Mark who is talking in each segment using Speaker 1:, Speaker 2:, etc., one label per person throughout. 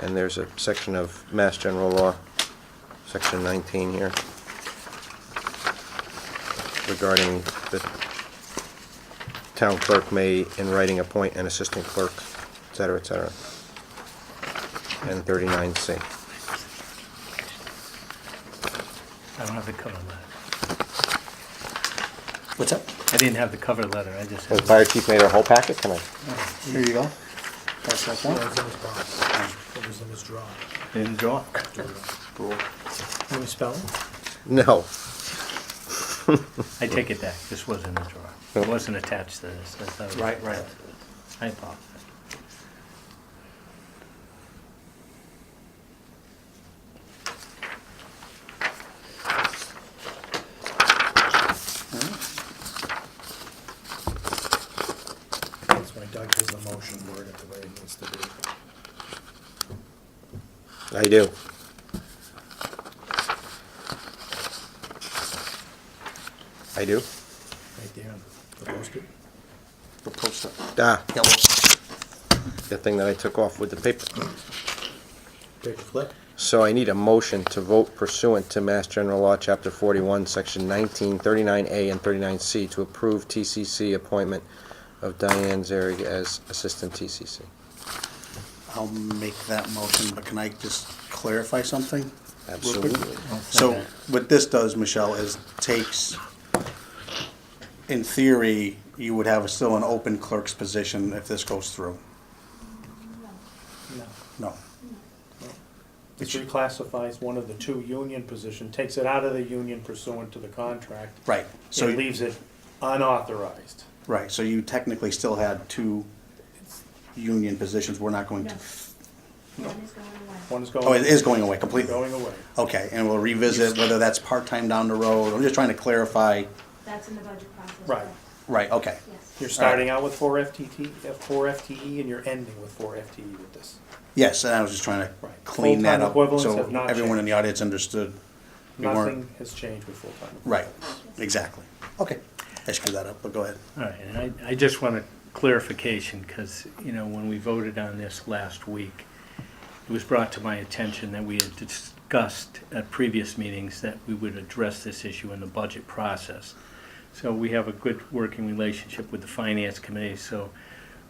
Speaker 1: And there's a section of Mass General Law, Section 19 here, regarding the town clerk may, in writing, appoint an assistant clerk, et cetera, et cetera. And 39C.
Speaker 2: I don't have the cover letter.
Speaker 3: What's up?
Speaker 2: I didn't have the cover letter, I just
Speaker 1: Has
Speaker 2: had.
Speaker 1: Fire Chief made our whole packet tonight?
Speaker 3: Here you go. That's that
Speaker 4: That
Speaker 3: one.
Speaker 4: was in his box. It was in his drawer.
Speaker 2: Didn't draw.
Speaker 4: Can we spell it?
Speaker 1: No.
Speaker 2: I take it back, this was in the drawer. It wasn't attached to this. I thought it was
Speaker 3: Right, right.
Speaker 2: attached to this. I apologize.
Speaker 4: That's why Doug has the motion worded the way it needs to be.
Speaker 1: I do. I do?
Speaker 4: Right there, the post-it.
Speaker 3: The poster.
Speaker 1: Ah,
Speaker 3: Yellow.
Speaker 1: the thing that I took off with the paper.
Speaker 4: Take a flip.
Speaker 1: So I need a motion to vote pursuant to Mass General Law, Chapter 41, Section 19, 39A, and 39C to approve TCC appointment of Diane Zarig as Assistant TCC.
Speaker 3: I'll make that motion, but can I just clarify something? real quick?
Speaker 1: Absolutely.
Speaker 3: So
Speaker 2: Okay.
Speaker 3: what this does, Michelle, is takes, in theory, you would have still an open clerk's position if this goes through.
Speaker 5: No.
Speaker 3: No.
Speaker 5: It reclassifies one of the two union position, takes it out of the union pursuant to the contract.
Speaker 3: Right. So,
Speaker 5: It leaves it unauthorized.
Speaker 3: right, so you technically still had two union positions. We're not going to,
Speaker 6: No. One is going away.
Speaker 5: One is going.
Speaker 3: oh, it is going away completely.
Speaker 5: Going away.
Speaker 3: Okay, and we'll revisit whether that's part-time down the road. I'm just trying to clarify.
Speaker 6: That's in the budget process.
Speaker 5: Right.
Speaker 3: Right, okay.
Speaker 6: Yes.
Speaker 5: You're starting out with four FTT, F- four FTE, and you're ending with four FTE with this.
Speaker 3: Yes, and I was just trying to
Speaker 5: Right.
Speaker 3: clean that up
Speaker 5: Full-time equivalents
Speaker 3: so
Speaker 5: have not
Speaker 3: everyone in
Speaker 5: changed.
Speaker 3: the audience understood. We weren't-
Speaker 5: Nothing has changed with full-time.
Speaker 3: Right, exactly. Okay, I screwed that up, but go ahead.
Speaker 2: All right, and I, I just want a clarification, because, you know, when we voted on this last week, it was brought to my attention that we had discussed at previous meetings that we would address this issue in the budget process. So we have a good working relationship with the finance committee, so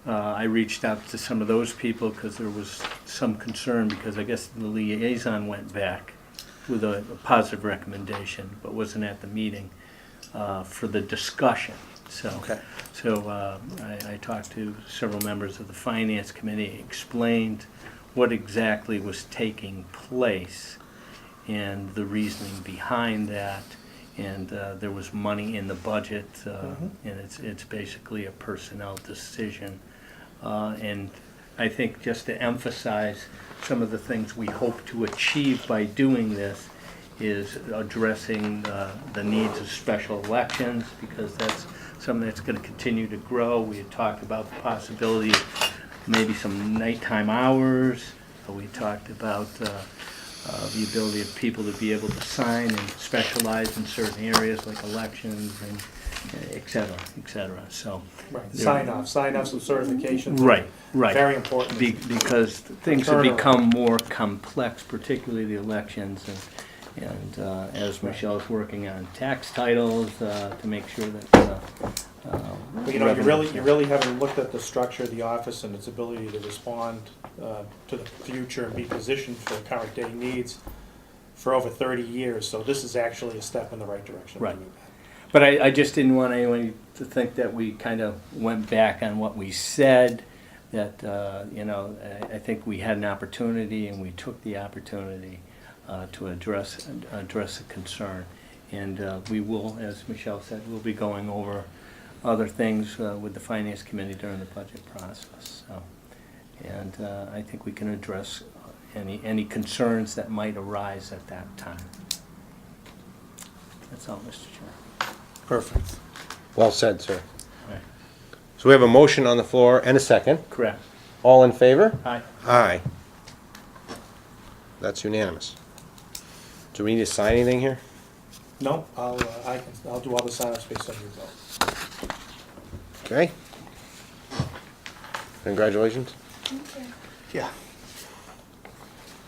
Speaker 2: uh, I reached out to some of those people, because there was some concern, because I guess the liaison went back with a a positive recommendation, but wasn't at the meeting uh, for the discussion, so.
Speaker 3: Okay.
Speaker 2: So uh, I I talked to several members of the Finance Committee, explained what exactly was taking place and the reasoning behind that. And uh, there was money in the budget, uh, and it's, it's basically a personnel decision. Uh, And I think just to emphasize some of the things we hope to achieve by doing this is addressing uh, the needs of special elections, because that's something that's going to continue to grow. We had talked about the possibility of maybe some nighttime hours. We talked about uh, uh, the ability of people to be able to sign and specialize in certain areas like elections and et cetera, et cetera. So,
Speaker 5: Right,
Speaker 2: Yeah.
Speaker 5: sign off, sign off some certifications.
Speaker 2: right, right.
Speaker 5: Very important.
Speaker 2: Be- Because things have
Speaker 5: Turnaround.
Speaker 2: become more complex, particularly the elections, and, and uh, as Michelle's working on tax titles, uh, to make sure that, uh, uh,
Speaker 5: But, You know, you
Speaker 2: revenue-
Speaker 5: really, you really haven't looked at the structure of the office and its ability to respond uh, to the future and be positioned for current day needs for over thirty years, so this is actually a step in the right direction.
Speaker 2: Right. But I, I just didn't want anyone to think that we kind of went back on what we said, that, uh, you know, I, I think we had an opportunity and we took the opportunity uh, to address, address the concern. And uh, we will, as Michelle said, we'll be going over other things uh, with the Finance Committee during the budget process, so. And uh, I think we can address any, any concerns that might arise at that time. That's all, Mr. Chair.
Speaker 3: Perfect.
Speaker 1: Well said, sir.
Speaker 2: Right.
Speaker 1: So we have a motion on the floor and a second.
Speaker 2: Correct.
Speaker 1: All in favor?
Speaker 2: Aye.
Speaker 1: Aye. That's unanimous. Do we need to sign anything here?
Speaker 5: No, I'll, uh, I can, I'll do all the sign-ups based on your vote.
Speaker 1: Okay. Congratulations.
Speaker 6: Thank you.
Speaker 3: Yeah.